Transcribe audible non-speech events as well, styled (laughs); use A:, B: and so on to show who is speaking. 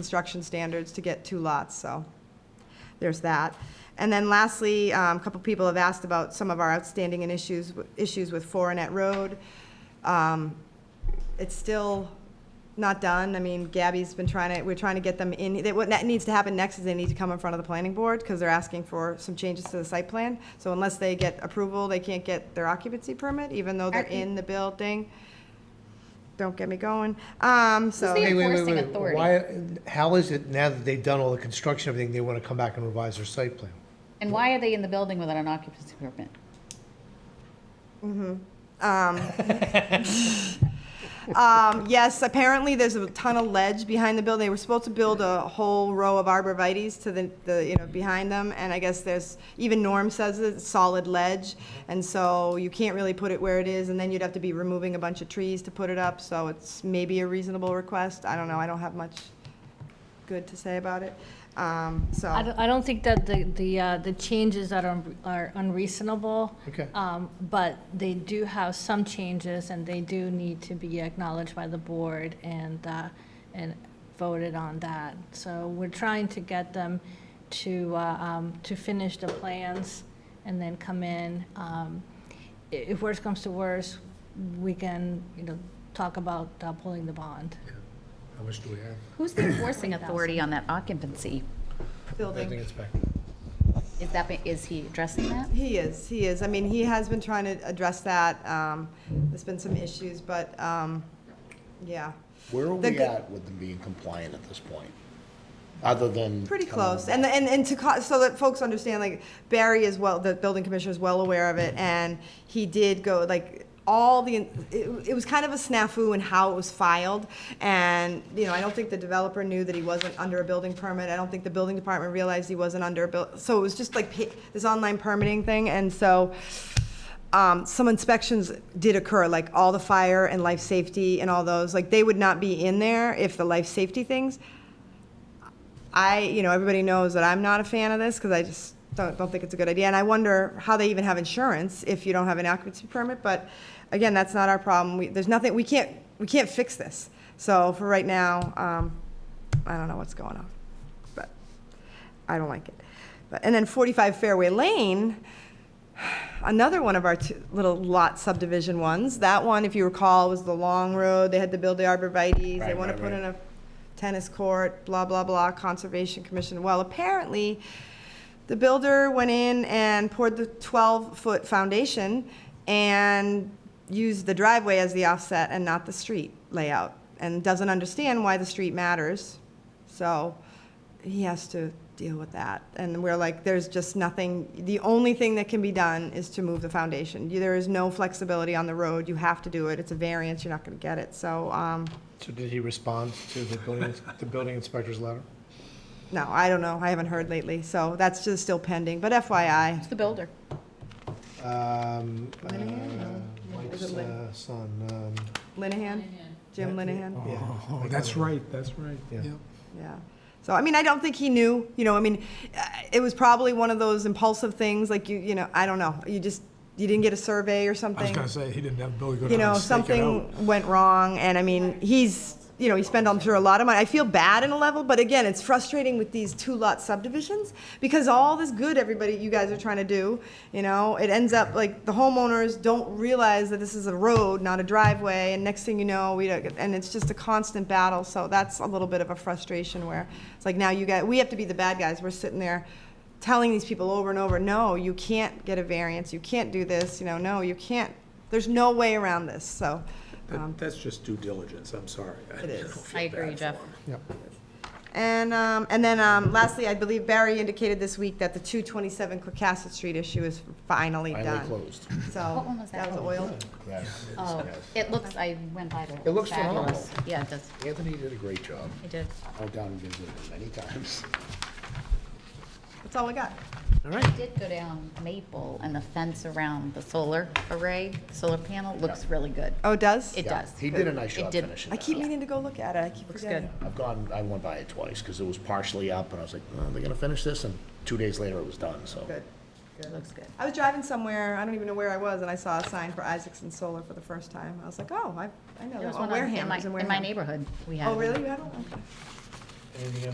A: construction standards to get two lots, so there's that. And then lastly, um, a couple people have asked about some of our outstanding and issues, issues with Forenet Road. Um, It's still not done. I mean, Gabby's been trying to, we're trying to get them in, that- what that needs to happen next is they need to come in front of the planning board because they're asking for some changes to the site plan. So unless they get approval, they can't get their occupancy permit, even though they're in the building. Don't get me going. Um, so.
B: the
C: Wait, wait, wait,
B: Enforcing
C: wait.
B: authority.
C: Why, how is it now that they've done all the construction, everything, they want to come back and revise their site plan?
B: And why are they in the building without an occupancy permit?
A: Um, yes, apparently there's a ton of ledge behind the building. They were supposed to build a whole row of arborvitae's to the, the, you know, behind them, and I guess there's, even Norm says it's solid ledge, and so you can't really put it where it is, and then you'd have to be removing a bunch of trees to put it up, so it's maybe a reasonable request. I don't know, I don't have much good to say about it, um, so.
D: I don't, I don't think that the, the, uh, the changes are un- are unreasonable.
C: Okay.
D: Um, But they do have some changes, and they do need to be acknowledged by the board and, uh, and voted on that. So we're trying to get them to, uh, um, to finish the plans and then come in. Um, i- If worse comes to worse, we can, you know, talk about uh, pulling the bond.
C: How much do we have?
B: Who's the enforcing authority on that occupancy?
C: I think
A: Building.
C: it's back.
B: Is that, be- is he addressing that?
A: He is, he is. I mean, he has been trying to address that. Um, there's been some issues, but, um, yeah.
E: Where are
A: The
E: we
A: go-
E: at with them being compliant at this point? Other than.
A: Pretty
E: coming
A: close,
E: back?
A: and, and, and to, co- so that folks understand, like, Barry is well, the building commissioner is well aware of it, and he did go, like, all the, it, it was kind of a snafu in how it was filed, and, you know, I don't think the developer knew that he wasn't under a building permit, I don't think the building department realized he wasn't under a bill, so it was just like pa- this online permitting thing, and so, um, some inspections did occur, like all the fire and life safety and all those, like, they would not be in there if the life safety things, I, you know, everybody knows that I'm not a fan of this because I just don't, don't think it's a good idea. And I wonder how they even have insurance if you don't have an occupancy permit. But again, that's not our problem. We, there's nothing, we can't, we can't fix this. So for right now, um, I don't know what's going on, but I don't like it. But, and then 45 Fairway Lane, another one of our two little lot subdivision ones. That one, if you recall, was the long road. They had to build the arborvitae's. They
C: Right,
A: want to
C: right,
A: put
C: right.
A: in a tennis court, blah, blah, blah, Conservation Commission. Well, apparently, the builder went in and poured the 12-foot foundation and used the driveway as the offset and not the street layout, and doesn't understand why the street matters. So he has to deal with that. And we're like, there's just nothing, the only thing that can be done is to move the foundation. There is no flexibility on the road. You have to do it. It's a variance. You're not going to get it. So, um,
C: So did he respond to the building, the building inspector's letter?
A: no, I don't know. I haven't heard lately. So that's just still pending. But FYI,
B: It's the builder.
C: Um, uh, Mike's uh, son, um,
A: Linehan, Jim Linehan.
F: Oh, that's right, that's right.
C: Yeah.
F: Yep.
A: Yeah. So, I mean, I don't think he knew, you know, I mean, uh, it was probably one of those impulsive things, like you, you know, I don't know, you just, you didn't get a survey or something.
F: I was gonna say, he didn't have Billy go
A: You
F: down
A: know,
F: and stake it out.
A: something went wrong, and I mean, he's, you know, he spent, I'm sure, a lot of money. I feel bad in a level, but again, it's frustrating with these two-lot subdivisions, because all this good everybody, you guys are trying to do, you know, it ends up, like, the homeowners don't realize that this is a road, not a driveway, and next thing you know, we don't, and it's just a constant battle, so that's a little bit of a frustration where, it's like, now you guys, we have to be the bad guys, we're sitting there telling these people over and over, no, you can't get a variance, you can't do this, you know, no, you can't, there's no way around this, so. um,
G: That- That's just due diligence, I'm sorry.
A: It is.
B: I agree, Jeff.
A: And, um, and then, um, lastly, I believe Barry indicated this week that the two twenty-seven Quercasset Street issue is finally
E: Finally
A: done.
E: closed.
B: What
A: So,
B: one was
A: that
B: that?
A: was oil. (laughs)
E: Yes,
B: Oh,
E: yes.
B: it looks, I went by there.
E: It looks
B: Fabulous. Yeah, it does.
E: Anthony did a great job.
B: It did.
E: I went down and visited him many times.
A: That's all we got.
B: I did go down Maple and the fence around the solar array, solar panel, looks really good.
A: Oh, it does?
B: It
E: Yeah,
B: does.
E: He did a nice
B: It
E: job
B: did.
E: finishing
A: I
E: that.
A: keep meaning to go look at it, I keep
B: Looks
A: forgetting.
B: good.
E: I've gone, I went by it twice because it was partially up and I was like, oh, they're gonna finish this and two days later it was done, so.
A: Good.
B: It looks good.
A: I was driving somewhere, I don't even know where I was, and I saw a sign for Isaacson Solar for the first time. I was like, oh, I, I know,
B: There
A: that one.
B: was one on-
A: Wareham,
B: in
A: it
B: my,
A: was in
B: in my
A: Wareham.
B: neighborhood, we had.
A: Oh,
B: one.
A: really? You had one? Okay.
C: Anything else?